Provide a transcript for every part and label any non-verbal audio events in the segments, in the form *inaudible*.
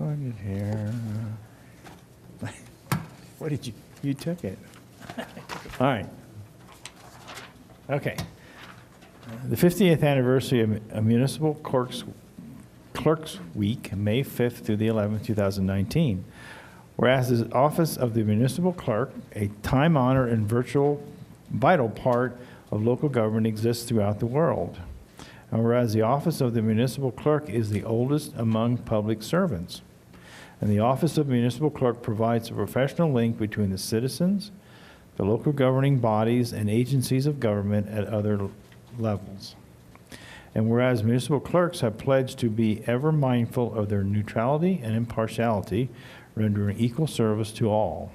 it here. What did you, you took it. All right. Okay. The 50th anniversary of Municipal Clerks, Clerks Week, May 5th through the 11th, 2019. Whereas the Office of the Municipal Clerk, a time-honored and virtual, vital part of local government exists throughout the world. And whereas the Office of the Municipal Clerk is the oldest among public servants. And the Office of Municipal Clerk provides a professional link between the citizens, the local governing bodies, and agencies of government at other levels. And whereas municipal clerks have pledged to be ever mindful of their neutrality and impartiality, rendering equal service to all.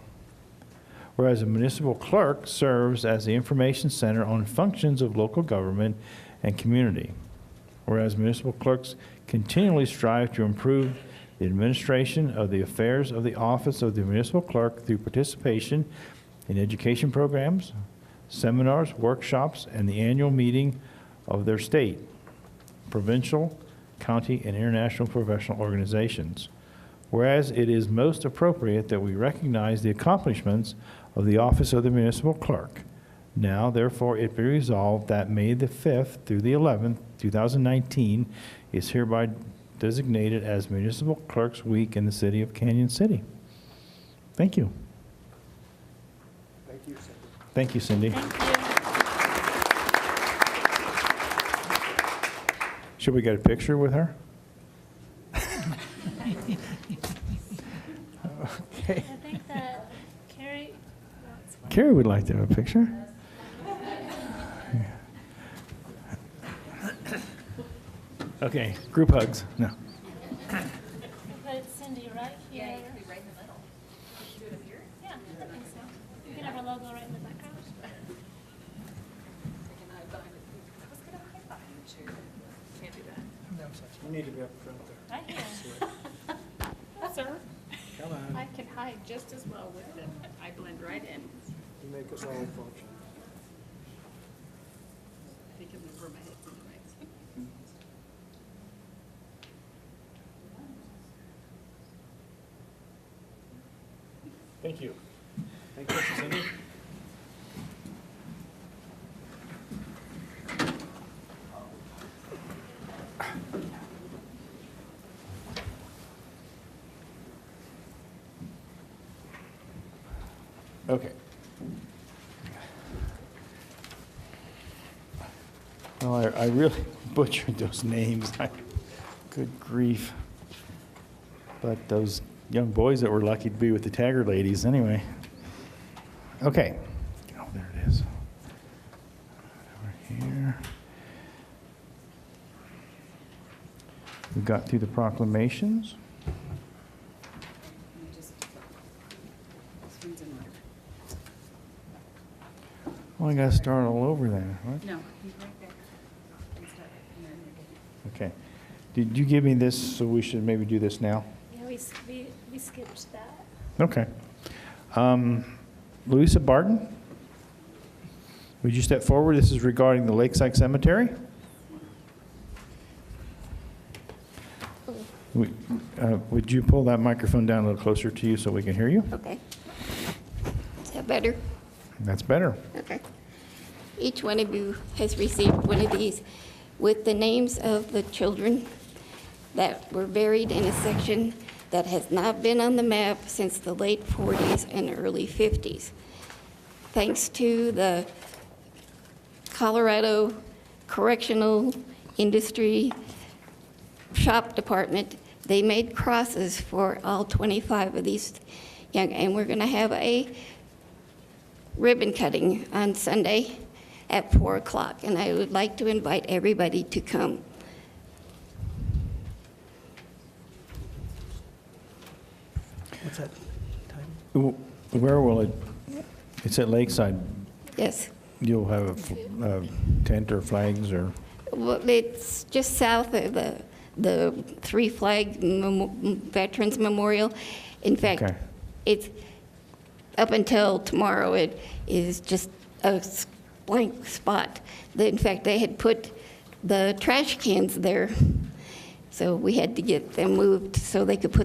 Whereas a municipal clerk serves as the information center on functions of local government and community. Whereas municipal clerks continually strive to improve the administration of the affairs of the office of the municipal clerk through participation in education programs, seminars, workshops, and the annual meeting of their state, provincial, county, and international professional organizations. Whereas it is most appropriate that we recognize the accomplishments of the office of the municipal clerk. Now, therefore, it be resolved that May the 5th through the 11th, 2019, is hereby designated as Municipal Clerks Week in the city of Canyon City. Thank you. Thank you, Cindy. Should we get a picture with her? Okay. I think that Carrie wants one. Carrie would like to have a picture. Okay, group hugs. No. But it's Cindy right here. Yeah, you could be right in the middle. Should we do it up here? Yeah, I think so. You can have our logo right in the background. You need to be up front there. Right *laughs* here. Sir, Come on, Um, I can hide just as well with it. I blend right in. you make us all function. They can move my head from the right. Thank you. Thank you, Cindy. Okay. Well, I, I really *laughs* butchered those names. *laughs* I- Good grief. But those young boys that were lucky to be with the Tagger ladies, anyway. Okay. Oh, there it is. Over here. We got through the proclamations. You just- This one's in order. Well, Oh, I gotta start all over then, right? No, he's right there. And start, and then you're good. Okay. Did you give me this, so we should maybe do this now? Yeah, we, s- we, we skipped that. Okay. Um, Louisa Barton, would you step forward? This is regarding the Lakeside Cemetery. Would uh, would you pull that microphone down a little closer to you so we can hear you? Okay. Is that better? That's better. Okay. Each one of you has received one of these with the names of the children that were buried in a section that has not been on the map since the late 40s and early 50s. Thanks to the Colorado Correctional Industry shop department, they made crosses for all 25 of these young, and we're going to have a ribbon cutting on Sunday at 4 o'clock, and I would like to invite everybody to come. What's that time? Wh- Where will it, it's at Lakeside. Yes, You'll have a fl- a tent or flags or, well, it's just south of the, the Three Flag Memo- Veterans Memorial. In fact, Okay. it's, up until tomorrow, it is just a s- blank spot. The- In fact, they had put the trash cans there, so we had to get them moved so they could put